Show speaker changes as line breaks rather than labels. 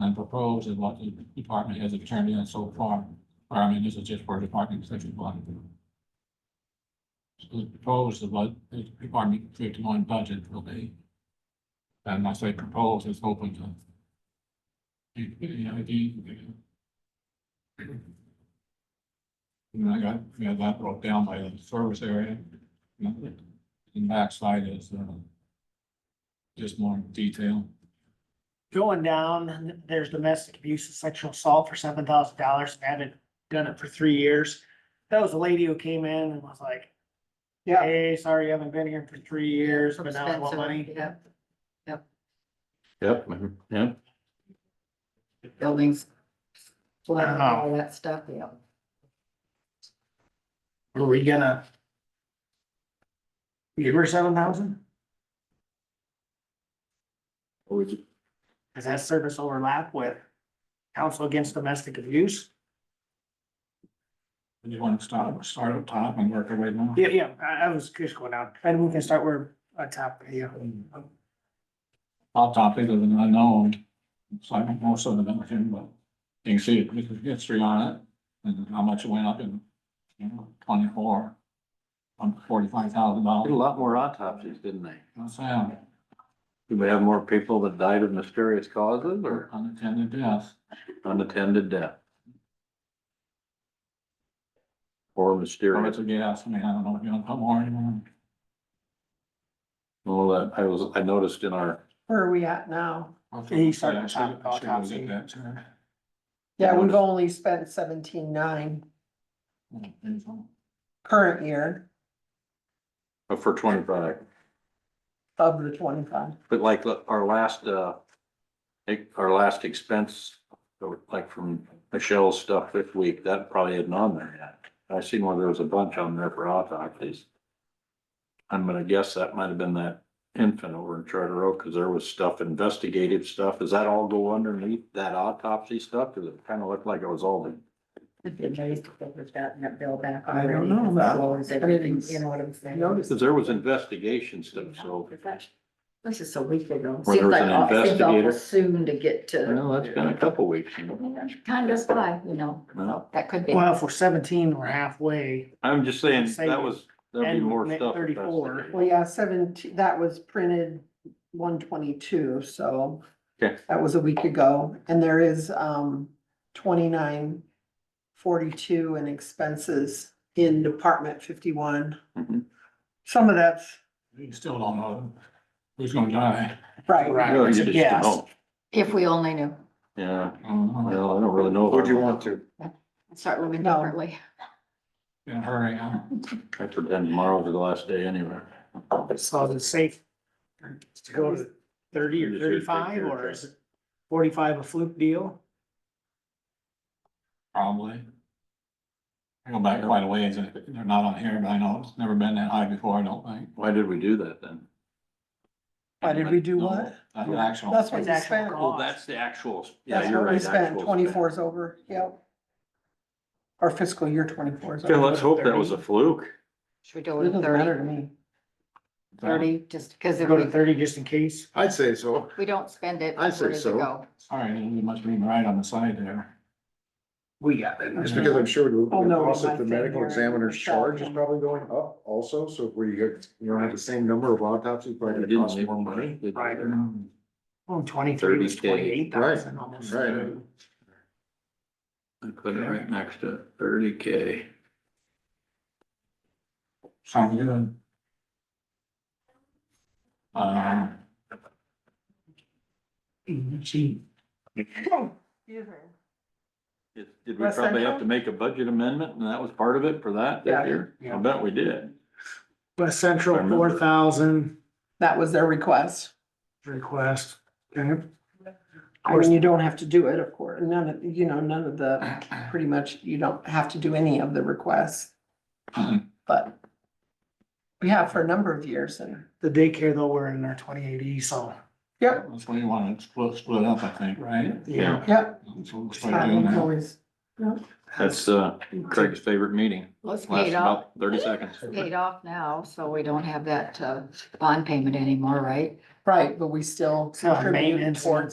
and proposed is what the department has turned in so far. Or I mean, this is just for department section one. So the proposed is what the department fifty-one budget will be. And I say proposed is hoping to. You you know, if you. And I got, we have that broke down by the service area. And the backside is, uh. Just more detail.
Going down, there's domestic abuse and sexual assault for seven thousand dollars. I haven't done it for three years. That was a lady who came in and was like,
Yeah.
hey, sorry, you haven't been here for three years, but now I want
Expensive,
money.
yeah.
Yep, mhm, yeah.
Buildings. flooding,
Uh-huh.
all that stuff, yeah.
Are we gonna? Give her seven thousand? Does that service overlap with counsel against domestic abuse?
You want to start, start up top and work our way down?
Yeah, yeah, I, I was just going down. And we can start where, on top, yeah.
I'll top it with an unknown, so I don't know some of them, but you can see the history on it and how much it went up in, you know, twenty-four. On forty-five thousand
Did a
dollars.
lot more autopsies, didn't they?
Sound,
Did we have more people that died of mysterious causes or
unattended death.
unattended death? Or
Or
mysterious,
it's a gas, I mean, I don't know if you want to put more in.
well, that, I was, I noticed in our,
Where are we at now?
He started to talk about autopsy.
autopsy.
Yeah, we've only spent seventeen nine current year
uh, for twenty-five,
of the twenty-five.
but like the- our last, uh, ex- our last expense, so, like from Michelle's stuff this week, that probably isn't on there yet. I seen one, there was a bunch on there for autopsies. I'm gonna guess that might have been that infant over in Charter Oak, cause there was stuff, investigative stuff. Does that all go underneath that autopsy stuff? Cause it kinda looked like it was all the
I don't know that. You know what I'm saying?
Notice that there was investigation stuff, so.
This is a week ago.
Where there was an
Seems like aw- seems awful
investigator.
Soon to get to,
Well, that's been a couple weeks. you know.
time goes by, you know,
Well,
that could be.
Well, if we're seventeen, we're halfway.
I'm just saying,
Say
that was, there'd be
and
more
make
stuff.
34.
investigated.
Well, yeah, seventeen, that was printed one twenty-two, so.
Okay.
That was a week ago, and there is, um, twenty-nine forty-two in expenses in Department fifty-one.
Mhm.
Some of that's,
You still don't know who's gonna die.
right,
Right.
No, you
it's a
just
guess.
don't.
If we only knew,
Yeah,
I don't know.
well, I don't really know. Would you want to?
start living
No.
differently.
In a hurry, huh?
I pretend tomorrow's the last day anyway.
So is it safe to go to thirty or thirty-five, or is it forty-five a fluke deal?
probably. I go back quite a ways, and they're not on here, but I know it's never been that high before, I don't think.
Why did we do that then?
Why did we do what?
That's an actual,
That's what
It's
we
actual
spent.
cost.
Oh, that's the actual, yeah,
That's
you're
what we
right.
spent,
actual spend.
twenty-four is over, yep. Our fiscal year twenty-four is
Okay,
over.
let's hope that was a fluke.
Should we do
It
it
doesn't matter
thirty,
to me.
thirty, just because if
Go to
we,
thirty just in case?
I'd say so.
we don't spend it,
I'd
where
say
does it
so.
go?
sorry, you must be right on the side there.
We got it.
Just because I'm sure the
Oh, no,
cost
my
that the
thing
medical
here,
examiner's
myself.
charge is probably going up also, so if we, you don't have the same number of autopsies,
We
probably gonna
didn't
cost
leave
more
them
money.
there.
Right.
Um,
Well, twenty-three was
30K.
twenty-eight thousand almost.
Right.
I put it right next to thirty K.
Sound good. Um,
Gee.
Did we
West
probably
Central?
have to make a budget amendment and that was part of it for that
Yeah.
this year?
Yeah.
I bet we did.
West
I
Central,
remember.
four thousand
That was their request.
request. Okay.
I mean, you don't have to do it, of course, none of, you know, none of the, pretty much, you don't have to do any of the requests,
Mm-hmm.
but we have for a number of years and,
The daycare though, we're in our twenty-eight E, so.
yep,
That's where you want to split, split up, I think, right?
Yeah.
yep.
So we'll
It's
start
not
doing that.
always-
That's uh, Craig's favorite meeting.
Let's pay
Lasts
it off,
about thirty seconds.
paid off now, so we don't have that, uh, bond payment anymore, right?
Right, but we still
It's not
contribute
maintenance.
towards